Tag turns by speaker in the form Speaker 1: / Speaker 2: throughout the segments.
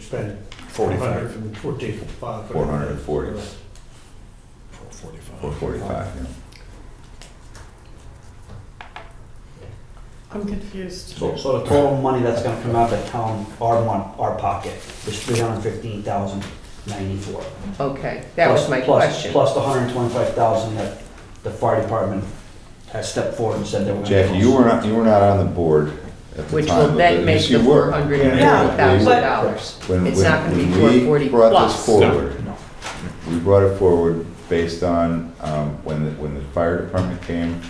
Speaker 1: spend
Speaker 2: Forty-five.
Speaker 1: 145.
Speaker 3: Four hundred and forty. Four
Speaker 2: Forty-five.
Speaker 3: forty-five, yeah.
Speaker 4: I'm confused.
Speaker 5: So, so the total money that's gonna come out of the town, our mon, our pocket, is three hundred fifteen thousand ninety-four.
Speaker 6: Okay, that was my question.
Speaker 5: Plus the hundred twenty-five thousand that the fire department has stepped forward and said they were. gonna
Speaker 3: Jackie,
Speaker 5: give
Speaker 3: you
Speaker 5: us.
Speaker 3: were not, you were not on the board at the
Speaker 6: Which
Speaker 3: time.
Speaker 6: will
Speaker 3: of
Speaker 6: then
Speaker 3: the-
Speaker 6: make
Speaker 3: yes,
Speaker 6: the
Speaker 3: you were.
Speaker 6: four hundred and
Speaker 3: Yeah.
Speaker 6: forty thousand dollars.
Speaker 3: When-
Speaker 6: It's
Speaker 3: when-
Speaker 6: not gonna be
Speaker 3: when
Speaker 6: four
Speaker 3: we
Speaker 6: forty
Speaker 3: Brought this
Speaker 6: plus.
Speaker 3: forward.
Speaker 5: No.
Speaker 3: We brought it forward based on, um, when the, when the fire department came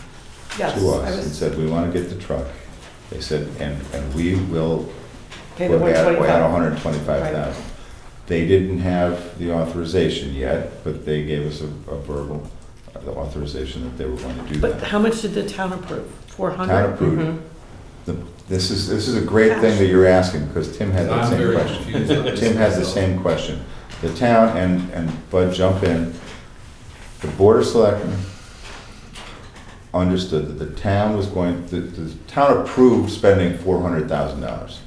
Speaker 4: Yes,
Speaker 3: to
Speaker 4: I
Speaker 3: us and
Speaker 4: was-
Speaker 3: said, we wanna get the truck. They said, and, and we will
Speaker 4: Okay, the
Speaker 3: put out, put out
Speaker 4: 125.
Speaker 3: hundred and twenty-five thousand. They didn't have the authorization yet, but they gave us a, a verbal, uh, the authorization that they were going to do
Speaker 4: But
Speaker 3: that.
Speaker 4: how much did the town approve? Four
Speaker 3: Town
Speaker 4: hundred?
Speaker 3: approved.
Speaker 6: Mhm.
Speaker 3: The- This is, this is a great thing that you're asking, because Tim had that
Speaker 2: I'm
Speaker 3: same
Speaker 2: very
Speaker 3: question.
Speaker 2: confused. on this
Speaker 3: Tim has the
Speaker 2: myself.
Speaker 3: same question. The town, and, and Bud, jump in. The Board of Selectmen understood that the town was going, the, the town approved spending four hundred thousand dollars.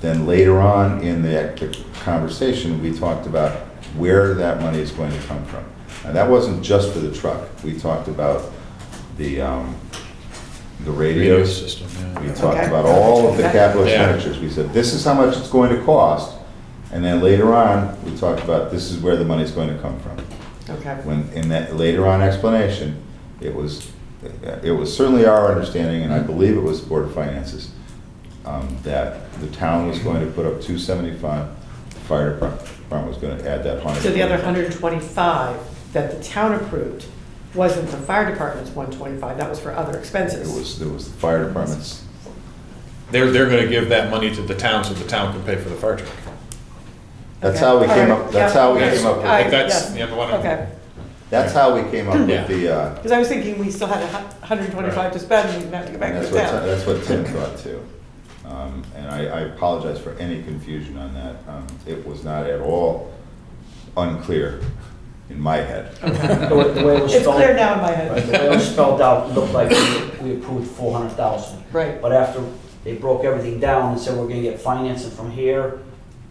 Speaker 3: Then later on in the the conversation, we talked about where that money is going to come from. And that wasn't just for the truck. We talked about the, um, the
Speaker 2: Radio
Speaker 3: radios.
Speaker 2: system, yeah.
Speaker 3: We talked
Speaker 4: Okay.
Speaker 3: about all of the
Speaker 4: Okay.
Speaker 3: capital
Speaker 2: Yeah.
Speaker 3: expenditures. We said, this is how much it's going to cost. And then later on, we talked about this is where the money's going to come from.
Speaker 4: Okay,
Speaker 3: When, in that later on explanation, it was, it was certainly our understanding, and I believe it was the Board of Finances, um, that the town was going to put up two seventy-five, the fire department was gonna add that hundred.
Speaker 4: so the other hundred and twenty-five that the town approved wasn't the fire department's one twenty-five, that was for other
Speaker 3: It
Speaker 4: expenses.
Speaker 3: was, it was the fire department's,
Speaker 2: They're, they're gonna give that money to the town so the town can pay for the fire truck.
Speaker 3: that's
Speaker 4: Okay.
Speaker 3: how we
Speaker 4: All
Speaker 3: came
Speaker 4: right.
Speaker 3: up, that's
Speaker 4: Yeah.
Speaker 3: how we
Speaker 2: Yes,
Speaker 3: came up
Speaker 2: I
Speaker 3: with,
Speaker 2: think
Speaker 4: Alright,
Speaker 2: that's,
Speaker 4: yes.
Speaker 2: yeah, the one.
Speaker 4: Okay,
Speaker 3: that's how we came up with the, uh,
Speaker 4: because I was thinking we still had a hundred and twenty-five to spend, we didn't have to go back
Speaker 3: And
Speaker 4: to
Speaker 3: That's
Speaker 4: the
Speaker 3: what,
Speaker 4: town.
Speaker 3: that's what Tim thought too. Um, And I, I apologize for any confusion on that. Um, It was not at all unclear in my head.
Speaker 5: The way the way it was
Speaker 4: It's
Speaker 5: spelled,
Speaker 4: clear now in my
Speaker 5: right, the
Speaker 4: head.
Speaker 5: way it was spelled out, looked like we- we approved four hundred thousand.
Speaker 4: Right,
Speaker 5: But after they broke everything down and said, we're gonna get financing from here,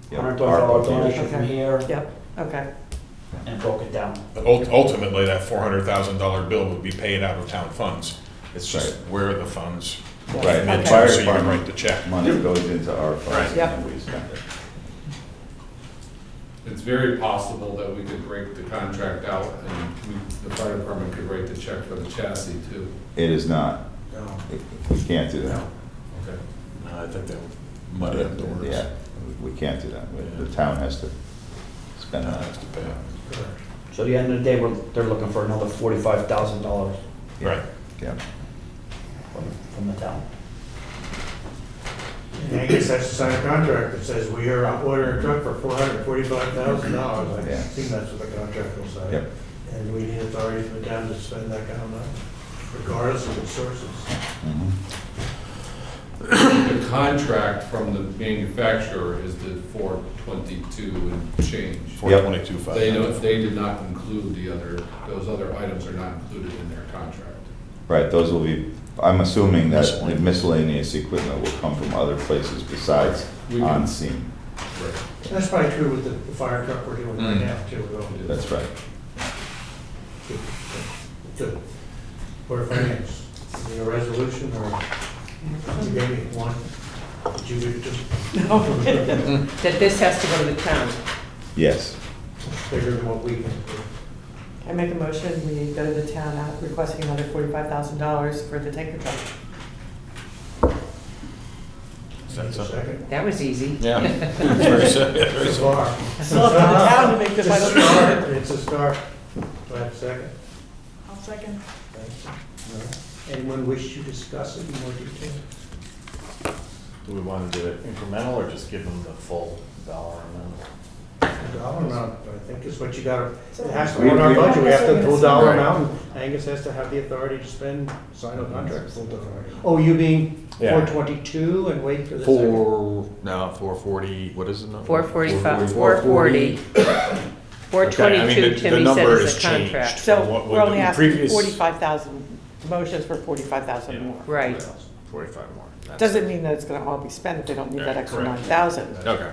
Speaker 3: Yep,
Speaker 5: hundred twenty-five dollar
Speaker 3: ARPA donation.
Speaker 5: donation from
Speaker 4: Okay.
Speaker 5: here,
Speaker 4: yep, okay,
Speaker 5: and broke it down.
Speaker 2: But ult- ultimately, that four hundred thousand dollar bill would be paid out of town funds. It's just
Speaker 3: Right.
Speaker 2: where are the funds,
Speaker 3: Right, and
Speaker 4: Okay.
Speaker 3: the fire
Speaker 2: so you can write
Speaker 3: department
Speaker 2: the check.
Speaker 3: money goes into our funds
Speaker 4: Right.
Speaker 3: and we spend it.
Speaker 7: It's very possible that we could break the contract out and we- the fire department could write the check for the chassis too.
Speaker 3: It is not,
Speaker 1: Oh,
Speaker 7: No.
Speaker 3: It- we can't do that.
Speaker 7: No, okay.
Speaker 2: No, Uh, I think that would muddy up the words.
Speaker 3: Yeah, we can't do that. The town has to spend
Speaker 2: Town
Speaker 3: that.
Speaker 2: has Uh, to pay out.
Speaker 5: So at the end of the day, we're, they're looking for another forty-five thousand dollars
Speaker 2: Right.
Speaker 3: Yeah.
Speaker 5: from, from the town.
Speaker 1: And I guess that's the signed contract that says we are ordering a truck for four hundred forty-five thousand dollars. I
Speaker 3: Yeah.
Speaker 1: think that's what the contract will say.
Speaker 3: Yep.
Speaker 1: And we need authority for the town to spend that kind of money, regardless of its sources.
Speaker 3: Mhm.
Speaker 7: The contract from the manufacturer is the four twenty-two and change.
Speaker 2: Four twenty-two five.
Speaker 7: They don't, they did not include the other, those other items are not included in their contract.
Speaker 3: Right, those will be, I'm assuming that the
Speaker 2: Miscellaneous.
Speaker 3: miscellaneous equipment will come from other places besides
Speaker 7: We can-
Speaker 3: on scene.
Speaker 7: Right.
Speaker 1: That's probably true with the the fire truck we're doing right
Speaker 2: Mm.
Speaker 1: now too. We're going to do
Speaker 3: That's right.
Speaker 1: to, for finance. Is there a resolution or you gave me one? Did you give it to
Speaker 6: That this has to go to the town.
Speaker 3: Yes.
Speaker 1: bigger than what we can do?
Speaker 4: I make a motion, we go to the town uh, requesting another forty-five thousand dollars for the tanker truck.
Speaker 2: Is that
Speaker 1: Just a
Speaker 2: something?
Speaker 1: second.
Speaker 6: That was easy.
Speaker 2: Yeah. Very si- very
Speaker 1: It's a
Speaker 2: simple.
Speaker 1: bar.
Speaker 4: Still up to the town to make the
Speaker 1: It's a
Speaker 4: final
Speaker 1: start, it's a start. Do I have a second?
Speaker 4: I'll second.
Speaker 1: Thank you. No? Anyone wish to discuss it in more detail?
Speaker 8: Do we want to do it incremental or just give them the full dollar amount?
Speaker 1: A dollar amount, I think is what you gotta, it has to
Speaker 3: We-
Speaker 1: be on our
Speaker 3: we-
Speaker 1: budget, we have to full dollar
Speaker 3: Right.
Speaker 1: amount. Angus has to have the authority to spend, sign a contract. full dollar. Oh, you being
Speaker 8: Yeah.
Speaker 1: four twenty-two and wait for the second?
Speaker 2: Four, no, four forty, what is the number?
Speaker 6: Four forty-five, four forty. Four
Speaker 2: Okay, I mean,
Speaker 6: twenty-two,
Speaker 2: the-
Speaker 6: Timmy
Speaker 2: the
Speaker 6: said
Speaker 2: number
Speaker 6: is
Speaker 2: has
Speaker 6: a
Speaker 2: changed.
Speaker 6: contract.
Speaker 2: What- what
Speaker 4: So we're only
Speaker 2: the
Speaker 4: asking
Speaker 2: previous-
Speaker 4: forty-five thousand, motions for forty-five
Speaker 2: Yeah.
Speaker 4: thousand more.
Speaker 6: Right.
Speaker 2: Forty-five more. That's-
Speaker 4: Doesn't mean that it's gonna all be spent if they don't need that
Speaker 2: Yeah,
Speaker 4: extra
Speaker 2: correct.
Speaker 4: nine thousand.
Speaker 2: Okay.